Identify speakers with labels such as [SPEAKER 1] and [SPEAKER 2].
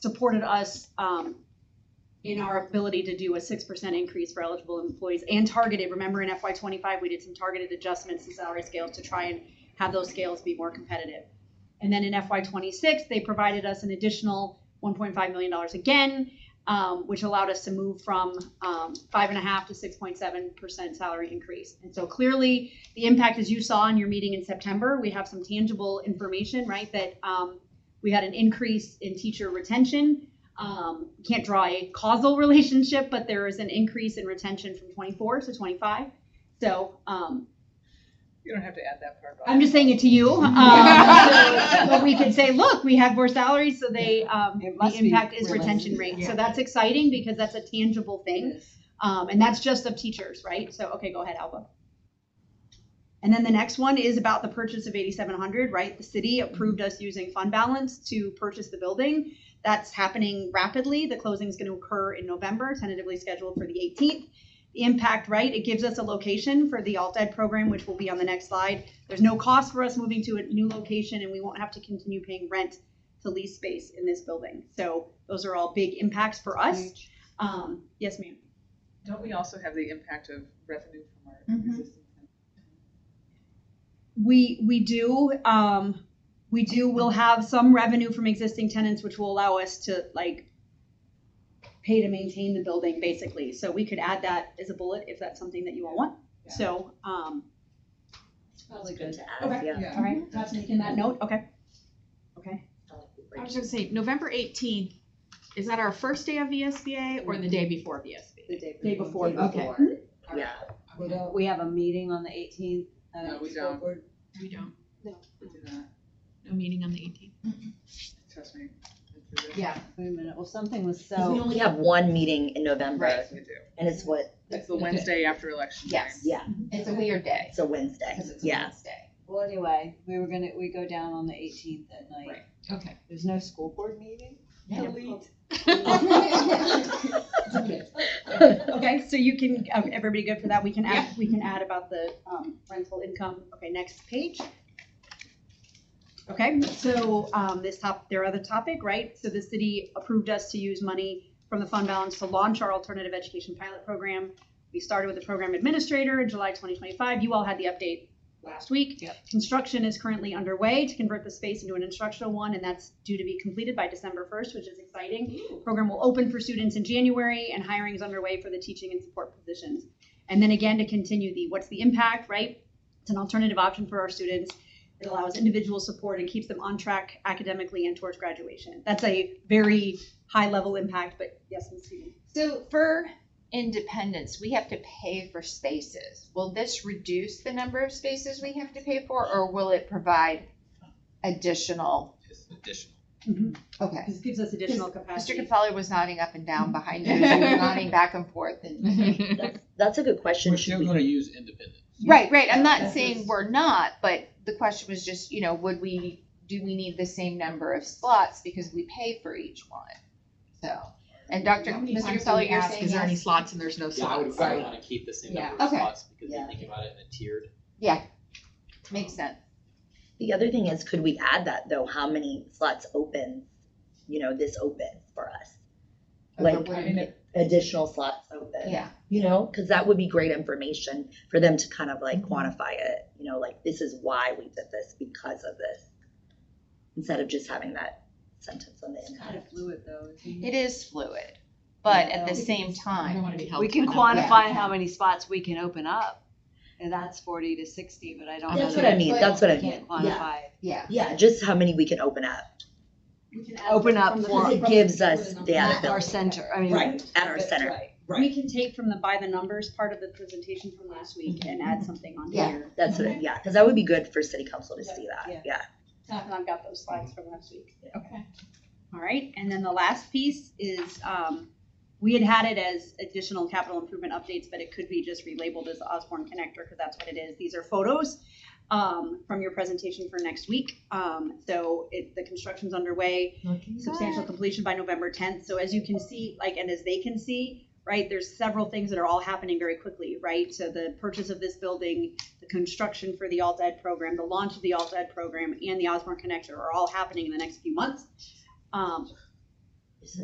[SPEAKER 1] supported us um, in our ability to do a six percent increase for eligible employees and targeted. Remember in FY twenty-five, we did some targeted adjustments to salary scales to try and have those scales be more competitive. And then in FY twenty-six, they provided us an additional one point five million dollars again, um, which allowed us to move from um, five and a half to six point seven percent salary increase. And so clearly, the impact, as you saw in your meeting in September, we have some tangible information, right? That um, we had an increase in teacher retention. Um, can't draw a causal relationship, but there is an increase in retention from 24 to 25. So um,
[SPEAKER 2] You don't have to add that part.
[SPEAKER 1] I'm just saying it to you. Um, so- but we could say, look, we have more salaries, so they um,
[SPEAKER 2] It
[SPEAKER 1] the
[SPEAKER 2] must be
[SPEAKER 1] impact is
[SPEAKER 2] realistic.
[SPEAKER 1] retention rate. So
[SPEAKER 2] Yeah.
[SPEAKER 1] that's exciting because that's a tangible thing, um, and that's just of teachers, right? So okay, go ahead, Alba. And then the next one is about the purchase of 8,700, right? The city approved us using fund balance to purchase the building. That's happening rapidly. The closing is going to occur in November, tentatively scheduled for the 18th. The impact, right? It gives us a location for the alt ed program, which will be on the next slide. There's no cost for us moving to a new location, and we won't have to continue paying rent to lease space in this building. So those are all big impacts for us. Um, yes, ma'am.
[SPEAKER 2] Don't we also have the impact of revenue from our
[SPEAKER 1] Mhm.
[SPEAKER 2] existing?
[SPEAKER 1] We, we do, um, we do, we'll have some revenue from existing tenants, which will allow us to like pay to maintain the building, basically. So we could add that as a bullet if that's something that you all want.
[SPEAKER 2] Yeah.
[SPEAKER 1] So, um,
[SPEAKER 3] Probably good to
[SPEAKER 1] Okay.
[SPEAKER 3] add, yeah.
[SPEAKER 1] all right, that's making that note, okay? Okay.
[SPEAKER 4] I was gonna say, November eighteenth, is that our first day of VSBA or the day before VSBA?
[SPEAKER 1] Day before.
[SPEAKER 3] Okay. Yeah,
[SPEAKER 5] We don't, we have a meeting on the eighteenth. Uh,
[SPEAKER 2] No, we don't.
[SPEAKER 4] We don't,
[SPEAKER 2] We do not,
[SPEAKER 4] no meeting on the eighteenth.
[SPEAKER 2] trust me.
[SPEAKER 4] Yeah.
[SPEAKER 5] Wait a minute, well, something was
[SPEAKER 3] because we
[SPEAKER 5] so,
[SPEAKER 3] only have one meeting in November,
[SPEAKER 2] Right, we do.
[SPEAKER 3] and it's what,
[SPEAKER 2] It's the Wednesday after election day.
[SPEAKER 3] yes, yeah,
[SPEAKER 6] It's a weird day,
[SPEAKER 3] it's a Wednesday,
[SPEAKER 6] because it's a
[SPEAKER 3] yeah.
[SPEAKER 6] Wednesday.
[SPEAKER 5] well, anyway, we were gonna, we go down on the eighteenth at night.
[SPEAKER 6] Right.
[SPEAKER 4] Okay.
[SPEAKER 5] There's no school board meeting?
[SPEAKER 6] Yeah.
[SPEAKER 5] Delete.
[SPEAKER 1] Okay, so you can, um, everybody good for that? We can add, we can add about the um, rental income. Okay, next page. Okay, so um, this top, their other topic, right? So the city approved us to use money from the fund balance to launch our alternative education pilot program. We started with the program administrator in July 2025. You all had the update last week.
[SPEAKER 5] Yep.
[SPEAKER 1] Construction is currently underway to convert the space into an instructional one, and that's due to be completed by December 1st, which is exciting. Program will open for students in January, and hiring is underway for the teaching and support positions. And then again, to continue the what's the impact, right? It's an alternative option for our students. It allows individual support and keeps them on track academically and towards graduation. That's a very high level impact, but yes, Ms. Stevens.
[SPEAKER 6] So for independence, we have to pay for spaces. Will this reduce the number of spaces we have to pay for, or will it provide additional?
[SPEAKER 7] Just additional.
[SPEAKER 4] Mm-hmm.
[SPEAKER 6] Okay.
[SPEAKER 1] This gives us additional
[SPEAKER 6] Mr.
[SPEAKER 1] capacity.
[SPEAKER 6] Capelli was nodding up and down behind you, you were nodding back and forth and.
[SPEAKER 3] That's, that's a good question,
[SPEAKER 7] We're
[SPEAKER 3] should
[SPEAKER 7] still
[SPEAKER 3] we,
[SPEAKER 7] gonna use independent.
[SPEAKER 6] Right, right, I'm not
[SPEAKER 5] That's
[SPEAKER 6] saying
[SPEAKER 5] just-
[SPEAKER 6] we're not, but the question was just, you know, would we, do we need the same number of slots because we pay for each one? So, and Dr.
[SPEAKER 4] How many
[SPEAKER 6] Mr.
[SPEAKER 4] times do we
[SPEAKER 6] Capelli, you're
[SPEAKER 4] ask,
[SPEAKER 6] saying
[SPEAKER 4] is there any
[SPEAKER 6] yes?
[SPEAKER 4] slots and there's no
[SPEAKER 7] Yeah, I would
[SPEAKER 4] slots?
[SPEAKER 7] probably wanna keep the same
[SPEAKER 4] Yeah.
[SPEAKER 7] number of
[SPEAKER 6] Okay.
[SPEAKER 7] slots, because
[SPEAKER 3] Yeah.
[SPEAKER 7] we think about it in a tiered.
[SPEAKER 6] Makes sense.
[SPEAKER 3] the other thing is, could we add that though, how many slots open, you know, this opens for us?
[SPEAKER 6] Over
[SPEAKER 3] Like-
[SPEAKER 6] what-
[SPEAKER 2] I mean, it-
[SPEAKER 3] Additional slots open.
[SPEAKER 6] Yeah,
[SPEAKER 3] You know, cause that would be great information for them to kind of like quantify it, you know, like this is why we did this, because of this. Instead of just having that sentence on the
[SPEAKER 5] It's
[SPEAKER 3] end.
[SPEAKER 5] kind of fluid though. isn't
[SPEAKER 6] it is fluid, but
[SPEAKER 5] Yeah.
[SPEAKER 6] at the same
[SPEAKER 4] I don't
[SPEAKER 6] time,
[SPEAKER 4] wanna be held.
[SPEAKER 5] We
[SPEAKER 4] to
[SPEAKER 5] can
[SPEAKER 4] a number.
[SPEAKER 5] quantify how many spots we can open up, and that's forty to sixty, but I don't.
[SPEAKER 3] That's
[SPEAKER 5] know
[SPEAKER 3] what I
[SPEAKER 5] that
[SPEAKER 3] mean,
[SPEAKER 5] we
[SPEAKER 3] that's what I mean,
[SPEAKER 5] Can't
[SPEAKER 3] yeah,
[SPEAKER 5] quantify.
[SPEAKER 6] yeah.
[SPEAKER 3] yeah, just how many we can open up,
[SPEAKER 1] We can
[SPEAKER 5] Open
[SPEAKER 1] add
[SPEAKER 5] up
[SPEAKER 1] from the-
[SPEAKER 5] for-
[SPEAKER 3] cause it gives us the
[SPEAKER 5] At
[SPEAKER 3] ability.
[SPEAKER 5] Our center, I mean.
[SPEAKER 3] Right, at our
[SPEAKER 5] that's
[SPEAKER 3] center,
[SPEAKER 5] right.
[SPEAKER 1] We can take from the by the numbers part of the presentation from last week and add something on
[SPEAKER 6] Yeah.
[SPEAKER 1] here.
[SPEAKER 3] that's what, it- yeah, cause that would be good for city council to see
[SPEAKER 5] Mm-hmm. Yeah.
[SPEAKER 3] that, yeah.
[SPEAKER 1] Uh, And I've got those slides from last week.
[SPEAKER 4] Okay.
[SPEAKER 1] All right, and then the last piece is, um, we had had it as additional capital improvement updates, but it could be just relabeled as Osborne Connector, because that's what it is. These are photos, um, from your presentation for next week. Um, so it, the construction's underway, substantial completion by November tenth. So as you can see, like, and as they can see, right, there's several things that are all happening very quickly, right? So the purchase of this building, the construction for the alt ed program, the launch of the alt ed program, and the Osborne Connector are all happening in the next few months. Um,